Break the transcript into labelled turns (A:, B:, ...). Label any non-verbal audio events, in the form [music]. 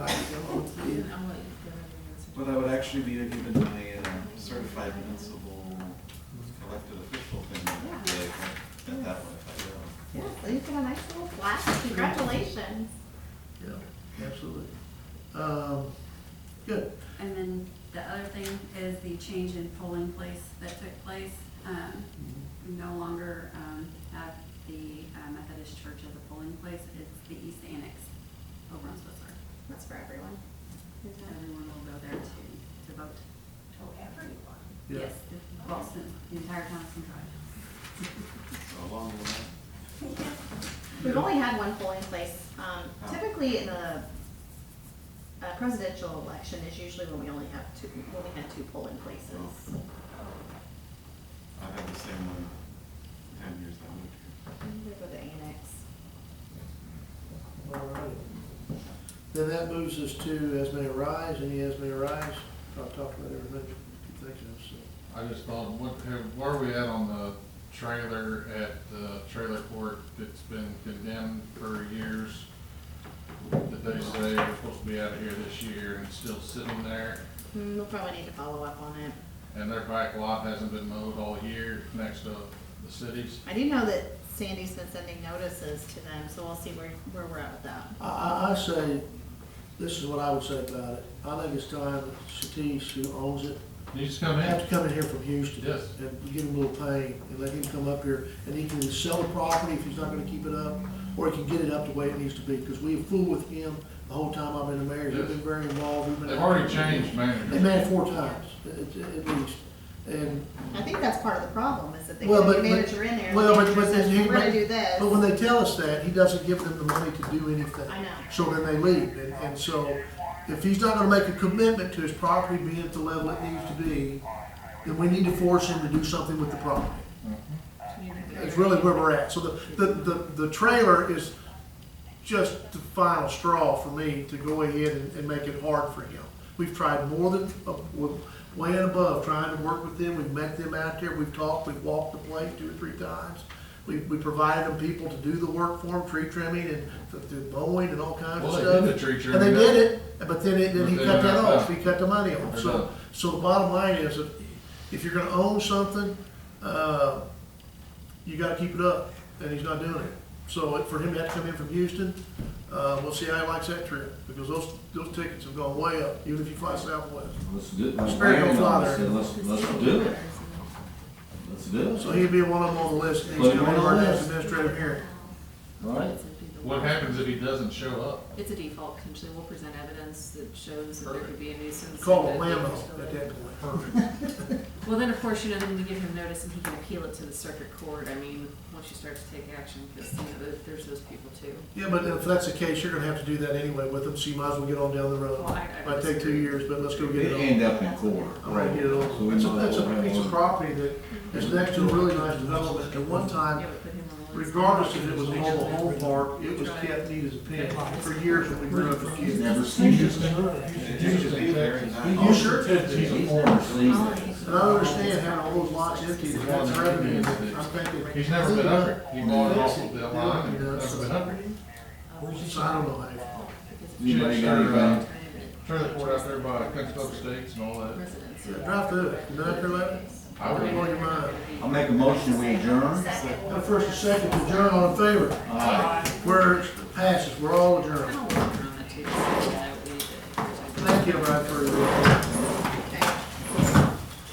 A: actually be given my uh, certified municipal elected official thing that day, if I get that one if I go.
B: Yeah, so you get a nice little plaque. Congratulations.
C: Yeah, absolutely. Um, Good.
D: And then the other thing is the change in polling place that took place. Um, We no longer um, have the uh, Methodist Church as a polling place, it's the East Annex over on Switzer.
B: That's for everyone.
D: Everyone will go there to, to vote.
E: to everyone.
C: Yeah.
D: Yes, the Boston, the entire Thompson Drive. [laughs]
A: So along the way.
B: We've only had one polling place. Um, Typically in a a presidential election is usually when we only have two, when we had two polling
C: Oh.
B: places.
A: I had the same one ten years that I lived here.
B: I'm gonna go to annex.
C: All right. Then that moves us to as may arise, any as may arise. I've talked about every minute, keep thinking of, so.
F: I just thought, what, have- where are we at on the trailer at the trailer court that's been condemned for years? That they say we're supposed to be out of here this year and it's still sitting there,
B: Hmm, We'll probably need to follow up on it.
F: and their back lot hasn't been mowed all year next to the cities.
B: I do know that Sandy's been sending notices to them, so we'll see where, where we're at with that.
C: I, I, I say, this is what I would say about it. I think it's time that Satish, who owns it,
F: You just come
C: I have
F: in,
C: to come in here from Houston.
F: Yes.
C: And give him a little pay and let him come up here and he can sell the property if he's not gonna keep it up, or he can get it up the way it needs to be, because we have fooled with him the whole time I've been the mayor. He's
F: Yes.
C: been very involved. We've been-
F: they've already changed
C: They
F: managers.
C: met four times, at, at least. And,
B: I think that's part of the problem, is that they
C: Well,
B: put a
C: but- but-
B: manager in there, and
C: well,
B: the
C: but-
B: manager
C: but
B: says,
C: then you-
B: we're gonna
C: but-
B: do this.
C: but when they tell us that, he doesn't give them the money to do anything.
B: I know.
C: So then they leave, and, and so if he's not gonna make a commitment to his property being at the level it needs to be, then we need to force him to do something with the property. It's really where we're at. So the, the, the, the trailer is just the final straw for me to go ahead and, and make it hard for him. We've tried more than, uh, we're way and above, trying to work with them. We've met them out there, we've talked, we've walked the place two or three times. We, we provided them people to do the work for them, tree trimming and the, the mowing and all kinds of
F: Well, they
C: stuff.
F: did the tree
C: And they
F: trimming,
C: did it, but then it, then he
F: But
C: cut
F: they're
C: that
F: not
C: off.
F: done.
C: He cut the money off.
F: They're
C: So,
F: done.
C: so the bottom line is, that if you're gonna own something, uh, you gotta keep it up, and he's not doing it. So it- for him to have to come in from Houston, uh, we'll see how he likes that trip, because those, those tickets have gone way up, even if you fly Southwest.
G: Let's do, it. let's
C: Spare your
G: land on
C: father.
G: this, and let's, let's do it, let's do
C: So
G: it,
C: he'd be one of them on the list, and he's
G: Put him
C: gonna
G: on
C: be our
G: the
C: next
G: list.
C: administrative hearing.
G: right?
D: It's a-
F: What happens if he doesn't show up?
H: It's a default, usually we'll present evidence that shows that there could be a nuisance.
C: Call
H: and
C: him
H: that they
C: Lambo
H: can still-
C: at that point.
H: Well, then, of course, you know, then you give him notice and he can appeal it to the circuit court, I mean, once you start to take action, because, you know, there- there's those people too.
C: Yeah, but if that's the case, you're gonna have to do that anyway with them, so you might as well get on down the road.
H: Well, I- I
C: Might take two
H: disagree.
C: years, but let's go get it
G: It
C: on.
G: end up in court.
C: I'm gonna get it
G: So
C: on.
G: we
C: It's a,
G: might
C: it's
G: as well
C: a
G: have
C: piece of
G: one.
C: property that is next to a really nice development. At one
H: Yeah,
C: time,
H: we put him on the list.
C: regardless if it was a mobile home park, it was kept neat as a pin for years when we grew up.
G: He's never seen this.
A: It used to be very
F: Oh,
A: nice.
C: You sure?
G: He's a former season.
C: And I don't understand how all those lots empty, that's revenue, I'm thinking.
F: He's never been up here, he bought it off of the line, and never been up here.
C: So I don't know how.
G: Anybody got anything?
F: uh, Trailer court out there by Kentucky States and all that.
H: Residents.
C: you- Drive through it, nine through eleven,
F: I would
C: blow your mind.
G: I'll make a motion, we adjourn.
C: Now, first and second, adjourn all in favor. Where it passes, we're all adjourned.
H: I'll work on that too, just so that we-
C: Thank you, everybody, for your.